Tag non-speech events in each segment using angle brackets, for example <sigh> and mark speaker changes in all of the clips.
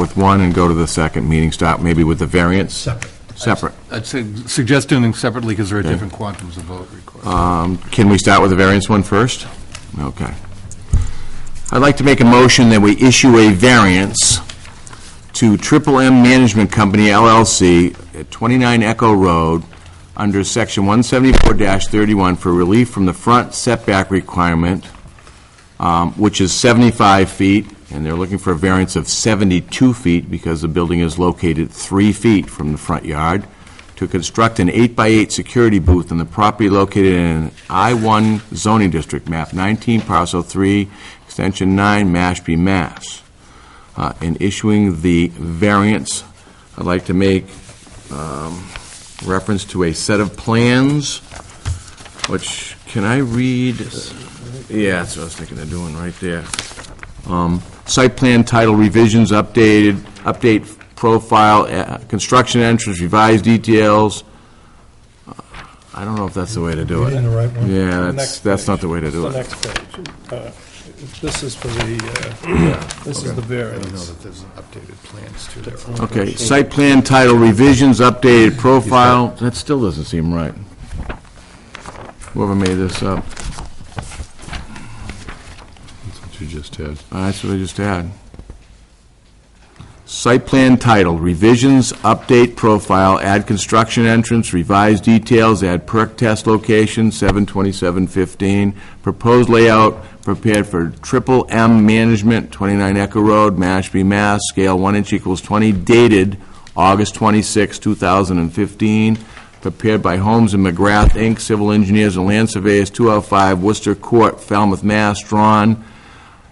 Speaker 1: with one and go to the second meeting, start maybe with the variance,
Speaker 2: separate.
Speaker 1: separate.
Speaker 3: I'd say- suggest doing them separately because there are different quantums of vote required.
Speaker 1: Can we start with the variance one first? Okay. I'd like to make a motion that we issue a variance to Triple M Management Company LLC at 29 Echo Road under Section 174-31 for relief from the front setback requirement, um, which is 75 feet, and they're looking for a variance of 72 feet because the building is located three feet from the front yard, to construct an eight-by-eight security booth on the property located in an I-1 zoning district, map 19, parcel 3, extension 9, Mashpee, Mass. Uh, In issuing the variance, I'd like to make um, reference to a set of plans, which, can I read? Yeah, that's what I was thinking of doing, right there. Um, Site plan title revisions updated, update profile, uh, construction entrance, revised details. Uh, I don't know if that's the way to do
Speaker 2: Reading the
Speaker 1: it.
Speaker 2: right one?
Speaker 1: Yeah, that's,
Speaker 4: Next
Speaker 1: that's not the way to
Speaker 4: It's
Speaker 1: do
Speaker 4: the
Speaker 1: it.
Speaker 4: next page. Uh, This is for the, uh, this is the
Speaker 3: I don't know
Speaker 5: Uh,
Speaker 4: variance.
Speaker 3: that there's updated plans to there.
Speaker 1: Okay, site plan title revisions, updated profile, that still doesn't seem right. Whoever made this up,
Speaker 3: That's what you just had.
Speaker 1: Uh, that's what I just had. Site plan title, revisions, update profile, add construction entrance, revise details, add perk test location, 72715, proposed layout prepared for Triple M Management, 29 Echo Road, Mashpee, Mass, scale 1 inch equals 20, dated August 26, 2015, prepared by Holmes and McGrath, Inc., civil engineers and land surveyors, 205 Worcester Court, Falmouth, Mass, drawn,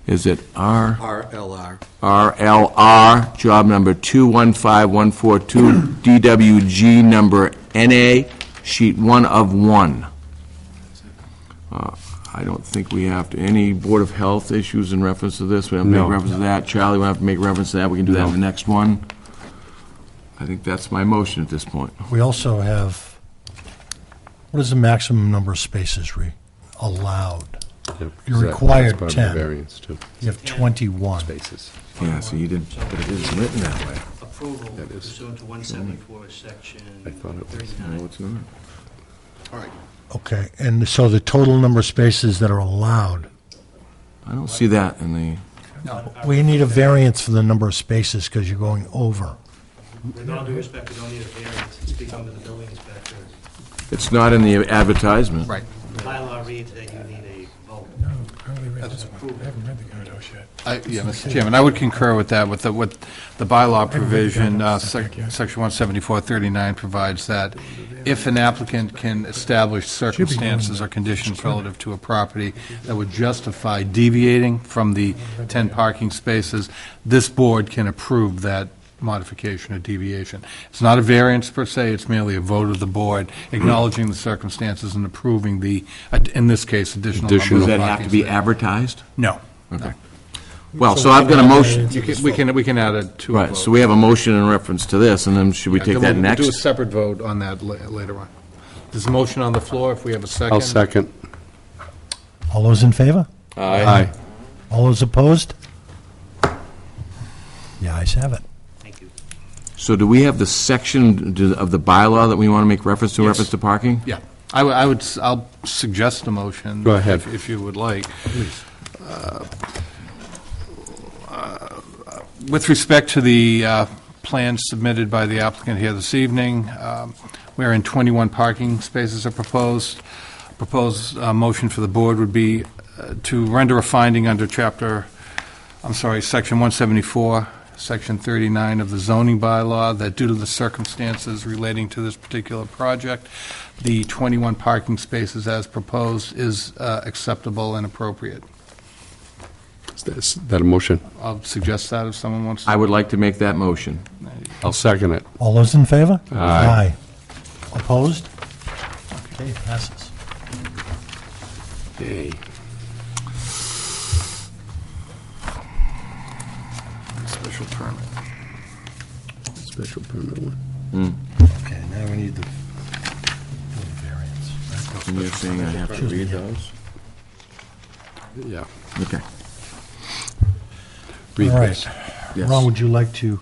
Speaker 1: is it R?
Speaker 6: RLR.
Speaker 1: RLR, job number <clears throat> 215142, DWG number NA, sheet 1 of 1. Uh, I don't think we have to, any Board of Health issues in reference to this? We have to make
Speaker 5: No.
Speaker 1: reference to that? Charlie, we have to make reference to that? We can do that in the next one? I think that's my motion at this point.
Speaker 2: We also have, what is the maximum number of spaces re, allowed? You're required 10.
Speaker 5: Variance too,
Speaker 2: You have 21.
Speaker 5: basis.
Speaker 1: Yeah, so you did, but it is written that way.
Speaker 7: approval
Speaker 5: That is-
Speaker 7: pursuant to 174, section
Speaker 5: I thought it was-
Speaker 7: 39.
Speaker 1: it's not.
Speaker 6: All right.
Speaker 2: Okay, and so the total number of spaces that are allowed,
Speaker 1: I don't see that in the,
Speaker 2: we need a variance for the number of spaces because you're going over.
Speaker 7: With all due respect, we don't need a variance, it's become to the building inspector.
Speaker 1: it's not in the advertisement.
Speaker 6: Right.
Speaker 7: The bylaw reads that you need a vote.
Speaker 3: I- Yeah, Mr. Chairman, I would concur with that, with the, with the bylaw provision, uh, sec- section 17439 provides that if an applicant can establish circumstances or conditions relative to a property that would justify deviating from the 10 parking spaces, this board can approve that modification or deviation. It's not a variance per se, it's merely a vote of the board acknowledging the circumstances and approving the, in this case, additional number of
Speaker 1: Does
Speaker 3: parking
Speaker 1: that have to be
Speaker 3: spaces.
Speaker 1: advertised?
Speaker 3: No.
Speaker 1: Okay. Well, Oh, so I've got a motion,
Speaker 3: You can- We can, we can add it to a
Speaker 1: right,
Speaker 3: vote.
Speaker 1: so we have a motion in reference to this, and then should we
Speaker 3: Yeah,
Speaker 1: take
Speaker 3: then
Speaker 1: that
Speaker 3: we'll Do a
Speaker 1: next?
Speaker 3: separate vote on that la- later on. There's a motion on the floor, if we have a 2nd
Speaker 5: I'll second.
Speaker 2: All those in favor?
Speaker 5: Aye.
Speaker 2: All those opposed? The ayes have it.
Speaker 7: Thank you.
Speaker 1: So do we have the section do- of the bylaw that we want to make reference to,
Speaker 3: Yes.
Speaker 1: reference to parking?
Speaker 3: Yeah, I would- I would, s- I'll suggest a motion.
Speaker 5: Go ahead.
Speaker 3: if- If you would like. Uh, With respect to the uh, plans submitted by the applicant here this evening, um, wherein 21 parking spaces are proposed, proposed uh, motion for the board would be uh, to render a finding under Chapter I'm sorry, Section 174, Section 39 of the zoning bylaw, that due to the circumstances relating to this particular project, the 21 parking spaces as proposed is uh, acceptable and appropriate.
Speaker 5: Is that- Is that a motion?
Speaker 3: I'll suggest that if someone wants to.
Speaker 1: I would like to make that motion.
Speaker 5: I'll second it.
Speaker 2: All those in favor? Aye.
Speaker 5: Aye.
Speaker 2: Opposed? Okay, passes.
Speaker 5: Yay.
Speaker 3: Special permit.
Speaker 5: Special permit one.
Speaker 2: Okay, now we need the variance.
Speaker 1: And you're saying I have to read those?
Speaker 5: Yeah.
Speaker 1: Okay.
Speaker 5: Read
Speaker 2: All
Speaker 5: this.
Speaker 2: right.
Speaker 1: Yes.
Speaker 2: Ron, would you like to?